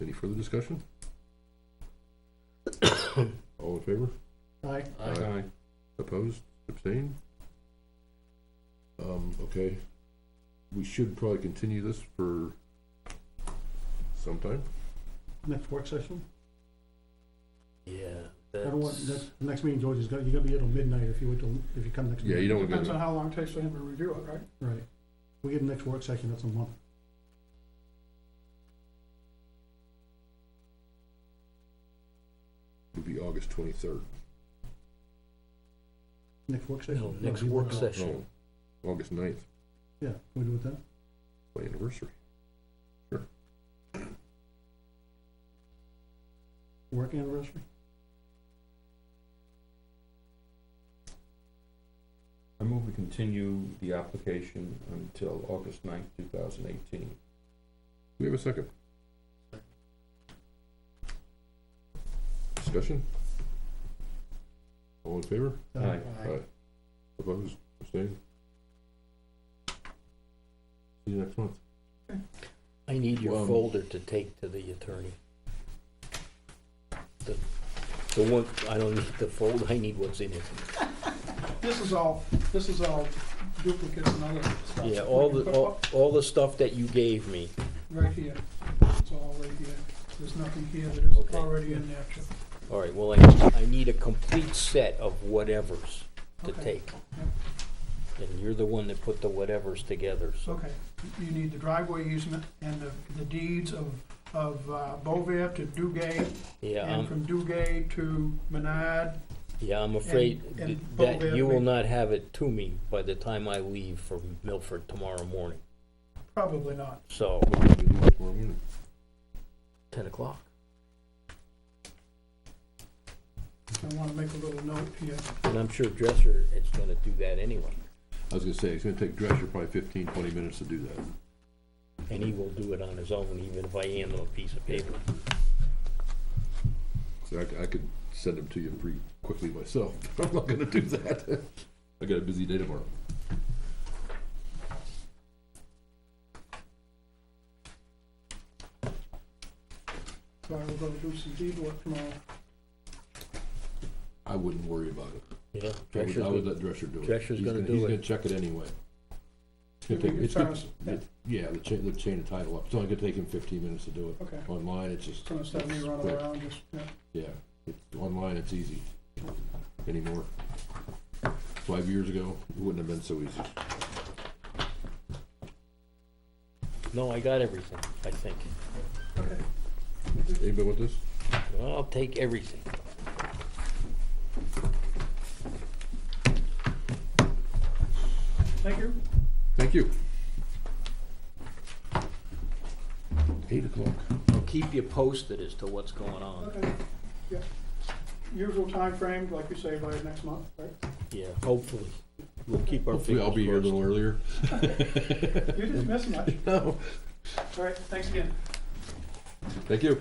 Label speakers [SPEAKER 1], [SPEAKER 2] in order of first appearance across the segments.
[SPEAKER 1] Any further discussion? All in favor?
[SPEAKER 2] Aye.
[SPEAKER 1] Opposed, abstained? Um, okay, we should probably continue this for sometime,
[SPEAKER 2] Next work session?
[SPEAKER 3] Yeah.
[SPEAKER 2] I don't want,
[SPEAKER 3] that's-
[SPEAKER 2] that's, the next meeting, George, is gonna, you gotta be at midnight if you wait till, if you come next.
[SPEAKER 1] yeah, you don't wanna
[SPEAKER 4] Depends
[SPEAKER 1] go,
[SPEAKER 4] on
[SPEAKER 1] to-
[SPEAKER 4] how long it takes for him to review it, right?
[SPEAKER 2] Right. We get the next work session, that's a month.
[SPEAKER 1] it'd be August twenty-third,
[SPEAKER 2] Next work session?
[SPEAKER 3] No,
[SPEAKER 2] it'll
[SPEAKER 3] next
[SPEAKER 2] be
[SPEAKER 3] work
[SPEAKER 2] one-
[SPEAKER 3] session.
[SPEAKER 1] no, Oh, August 9th,
[SPEAKER 2] Yeah, we do it then?
[SPEAKER 1] my anniversary.
[SPEAKER 2] Work anniversary?
[SPEAKER 5] I move we continue the application until August ninth, two thousand eighteen.
[SPEAKER 1] We have a second. Discussion? All in favor?
[SPEAKER 5] Aye.
[SPEAKER 1] Aye. Opposed, abstained? See you next month.
[SPEAKER 3] I need your
[SPEAKER 5] Um,
[SPEAKER 3] folder to take to the attorney. The, the one, I don't need the folder, I need what's in it.
[SPEAKER 4] This is all, this is all duplicates and other stuff.
[SPEAKER 3] Yeah, all the, all, all the stuff that you gave me.
[SPEAKER 4] Right here, it's all right here, there's nothing here that is
[SPEAKER 3] Okay.
[SPEAKER 4] already in there, Chip.
[SPEAKER 3] All right, well, I, I need a complete set of whatevers to
[SPEAKER 4] Okay.
[SPEAKER 3] take. And you're the one that put the whatevers together, so.
[SPEAKER 4] Okay, you need the driveway easement and the, the deeds of, of uh, Bovier to Dugay,
[SPEAKER 3] Yeah, um,
[SPEAKER 4] and
[SPEAKER 3] I'm,
[SPEAKER 4] from Dugay to Menard,
[SPEAKER 3] yeah, I'm afraid
[SPEAKER 4] and-
[SPEAKER 3] th-
[SPEAKER 4] and
[SPEAKER 3] that
[SPEAKER 4] Bovier
[SPEAKER 3] you will
[SPEAKER 4] we-
[SPEAKER 3] not have it to me by the time I leave for Milford tomorrow morning.
[SPEAKER 4] probably not.
[SPEAKER 3] So,
[SPEAKER 1] What do we do tomorrow morning?
[SPEAKER 3] ten o'clock.
[SPEAKER 4] I wanna make a little note here.
[SPEAKER 3] And I'm sure Dresser is gonna do that anyway,
[SPEAKER 1] I was gonna say, it's gonna take Drescher probably 15, 20 minutes to do that.
[SPEAKER 3] and he will do it on his own, even if I hand him a piece of paper.
[SPEAKER 1] So I, c- I could send them to you pretty quickly myself, but I'm not gonna do that. I got a busy day tomorrow.
[SPEAKER 4] So I will go do some deed work tomorrow.
[SPEAKER 1] I wouldn't worry about it.
[SPEAKER 3] Yeah,
[SPEAKER 1] I would, I would
[SPEAKER 3] Dresser's,
[SPEAKER 1] let Drescher do it.
[SPEAKER 3] Drescher's
[SPEAKER 1] He's
[SPEAKER 3] gonna do
[SPEAKER 1] He's
[SPEAKER 3] it.
[SPEAKER 1] gonna check it anyway. It's gonna
[SPEAKER 4] Give me
[SPEAKER 1] take-
[SPEAKER 4] your
[SPEAKER 1] it's gonna-
[SPEAKER 4] terms.
[SPEAKER 1] it- Yeah, the chain, the chain of title up. It's only gonna take him fifteen minutes to do it.
[SPEAKER 4] Okay,
[SPEAKER 1] Online, it's just.
[SPEAKER 4] it's gonna start me
[SPEAKER 1] it's
[SPEAKER 4] running
[SPEAKER 1] quick.
[SPEAKER 4] around, just, yeah.
[SPEAKER 1] Yeah, it's, online, it's easy anymore. Five years ago, it wouldn't have been so easy.
[SPEAKER 3] no, I got everything, I think.
[SPEAKER 4] okay.
[SPEAKER 1] Anybody with this?
[SPEAKER 3] Well, I'll take everything.
[SPEAKER 4] Thank you.
[SPEAKER 1] Thank you. Eight o'clock.
[SPEAKER 3] I'll keep you posted as to what's going on.
[SPEAKER 4] Okay, yeah. Usual timeframe, like you say, by next month, right?
[SPEAKER 3] Yeah, hopefully. We'll keep our
[SPEAKER 1] Hopefully
[SPEAKER 3] fingers
[SPEAKER 1] I'll be here a
[SPEAKER 3] crossed.
[SPEAKER 1] little earlier.
[SPEAKER 4] You didn't miss much.
[SPEAKER 1] No.
[SPEAKER 4] All right, thanks again.
[SPEAKER 1] Thank you.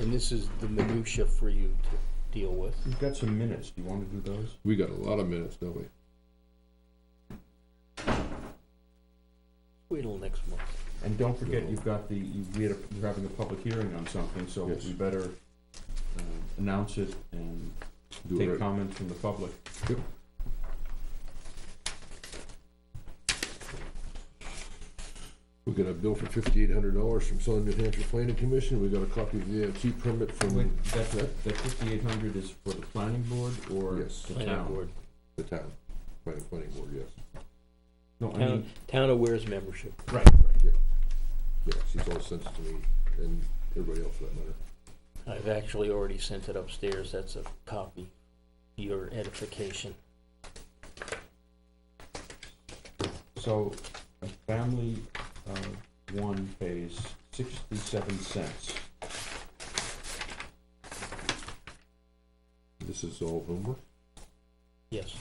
[SPEAKER 3] And this is the minutia for you to deal with.
[SPEAKER 5] We've got some minutes, do you wanna do those?
[SPEAKER 1] We got a lot of minutes, don't we?
[SPEAKER 3] Wait till next month.
[SPEAKER 5] And don't forget, you've got the, you, we had, a- you're having a public hearing on something, so
[SPEAKER 1] Yes.
[SPEAKER 5] we better, uh, announce it and
[SPEAKER 1] Do it
[SPEAKER 5] take
[SPEAKER 1] right.
[SPEAKER 5] comments from the public.
[SPEAKER 1] Yep. We got a bill for fifty-eight hundred dollars from Southern New Hampshire Planning Commission. We got a copy of the AFT permit
[SPEAKER 5] Wait,
[SPEAKER 1] from
[SPEAKER 5] that, that, that fifty-eight hundred is for the planning board or
[SPEAKER 1] Yes.
[SPEAKER 5] the
[SPEAKER 3] Planning
[SPEAKER 5] town?
[SPEAKER 3] board.
[SPEAKER 1] the town, planning, planning board, yes.
[SPEAKER 5] No, I
[SPEAKER 3] Town,
[SPEAKER 5] mean,
[SPEAKER 3] town of Ware's membership.
[SPEAKER 5] right, right.
[SPEAKER 1] Yeah, she's all sent it to me and everybody else for that matter.
[SPEAKER 3] I've actually already sent it upstairs, that's a copy, your edification.
[SPEAKER 5] So, a family, uh, one pays sixty-seven cents.
[SPEAKER 1] This is all Bloomberg?
[SPEAKER 3] Yes.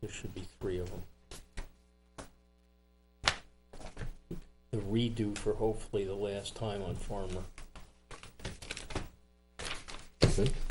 [SPEAKER 3] There should be three of them. The redo for hopefully the last time on Farmer.
[SPEAKER 1] I think.